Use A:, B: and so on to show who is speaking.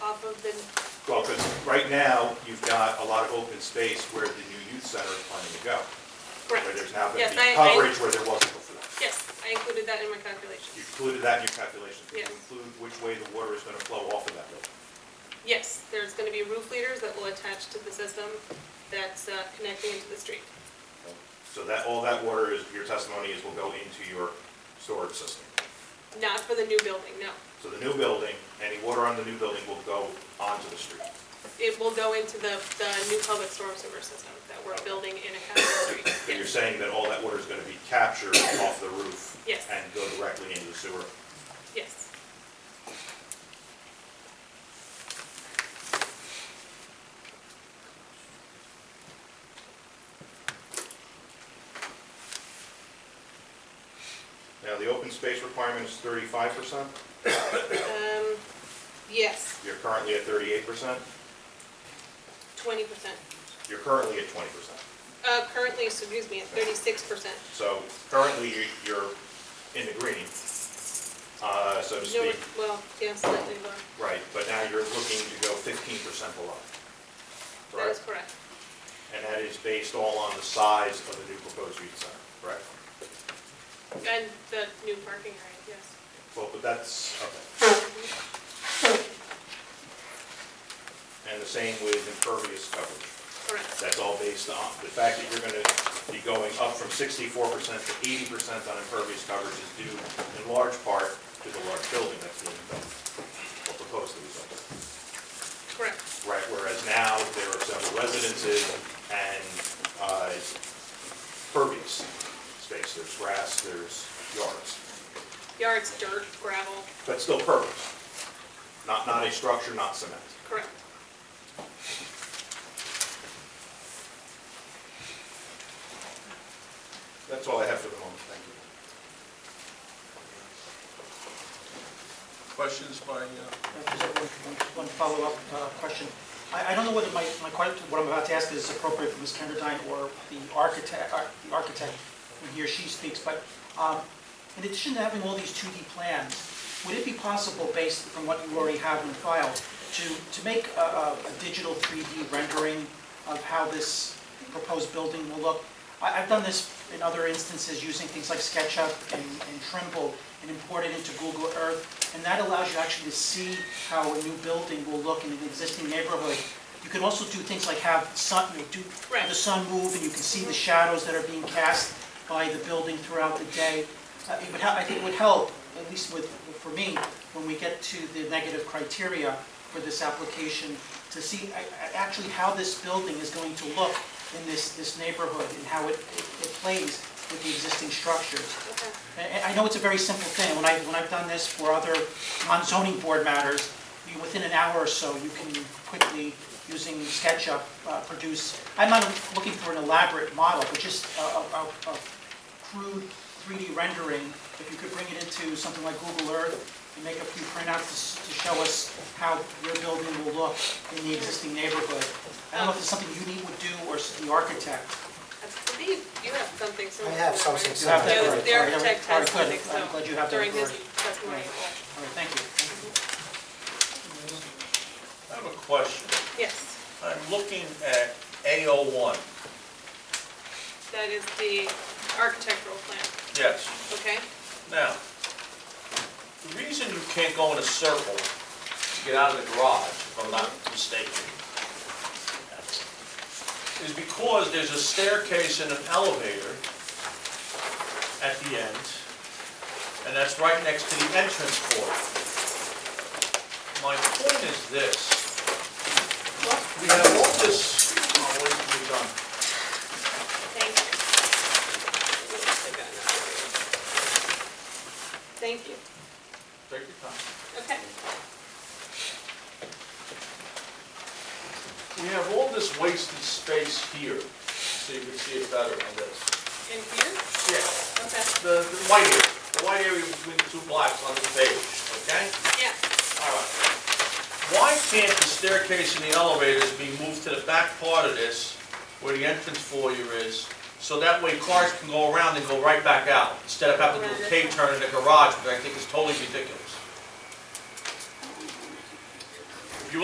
A: Well, because right now, you've got a lot of open space where the new youth center is planning to go, where
B: Correct.
A: there's now going to
B: Yes,
A: be
B: I- I-
A: coverage where there wasn't before.
B: Yes, I included that in my
A: You
B: calculations.
A: included that in your calculations, did
B: Yes.
A: you include which way the water is going to flow off of that building?
B: Yes, there's gonna be roof leaders that will attach to the system that's uh, connecting into the street.
A: So that, all that water is, your testimony is will go into your storage system.
B: Not for the new building, no.
A: So the new building, any water on the new building will go onto the street.
B: It will go into the, the new public storm sewer system that we're building in Academy Street.
A: But you're
B: Yes.
A: saying that all that water is going to be captured off the roof?
B: Yes.
A: And go directly into the sewer?
B: Yes.
A: Now, the open space requirement is thirty-five percent,
B: Um, yes,
A: you're currently at thirty-eight percent,
B: twenty percent.
A: you're currently at twenty percent.
B: Uh, currently, excuse me, at thirty-six percent.
A: So currently, you- you're in the green, uh, so to
B: No,
A: speak.
B: well, yeah, slightly lower.
A: Right, but now you're looking to go fifteen percent below.
B: That is
A: Correct?
B: correct.
A: And that is based all on the size of the new proposed youth center, correct?
B: And the new parking area, yes.
A: Well, but that's, okay. And the same with impervious coverage.
B: Correct,
A: That's all based on, the fact that you're gonna be going up from sixty-four percent to eighty percent on impervious coverage is due in large part to the large building that's being built, or proposed to be built.
B: correct.
A: Right, whereas now, there are several residences and, uh, pervious space, there's grass, there's yards,
B: Yards, dirt, gravel,
A: but still pervious. Not, not a structure, not cement.
B: correct.
A: That's all I have for the moment, thank you.
C: Questions by, uh,
D: Uh, just One one follow-up uh, question. I I don't know whether my, my question, what I'm about to ask is appropriate for Ms. Kenderdine or the architect, ar- the architect, when he or she speaks, but um, in addition to having all these 2D plans, would it be possible, based on what you already have in file, to, to make a- a a digital 3D rendering of how this proposed building will look? I- I've done this in other instances using things like SketchUp and and Trimble and import it into Google Earth, and that allows you actually to see how a new building will look in an existing neighborhood. You can also do things like have sun, you know, do, have the sun move, and you can see the shadows that are being cast by the building throughout the day. Uh, It would, hel- I think it would help, at least with, for me, when we get to the negative criteria for this application, to see a- a- actually how this building is going to look in this, this neighborhood and how it, it it plays with the existing structures.
B: Okay.
D: And I know it's a very simple thing, when I, when I've done this for other non-zoning board matters, you, within an hour or so, you can quickly, using SketchUp, uh, produce, I'm not looking for an elaborate model, but just a, a, a- a crude 3D rendering, if you could bring it into something like Google Earth and make a few printouts to, s- to show us how your building will look in the existing neighborhood. I don't know if it's something you need would do, or s- the architect.
B: I believe you have something similar.
E: I have something
B: right?
D: You have that,
B: The-
D: all right,
B: The
D: all right,
B: architect
D: all
B: has
D: right,
B: something,
D: good. I'm glad you
B: so
D: have that,
B: during his
D: all right.
B: testimony.
D: All right, thank you.
C: I have a question.
B: Yes,
C: I'm looking at A01,
B: that is the architectural plan,
C: yes.
B: okay?
C: Now, the reason you can't go in a circle to get out of the garage, if I'm not mistaken, is because there's a staircase and an elevator at the end, and that's right next to the entrance port. My point is this. We have all this, oh, wait, we're done.
B: Thank you. Thank you,
C: Take your time.
B: okay.
C: We have all this wasted space here, so you can see it better on this.
B: And here,
C: Yeah.
B: okay,
C: The, the white area, the white area between the two blocks on this page, okay?
B: yeah,
C: All right. Why can't the staircase and the elevators be moved to the back part of this, where the entrance foyer is, so that way cars can go around and go right back out, instead of having to do a K-turn in the garage, which I think is totally ridiculous?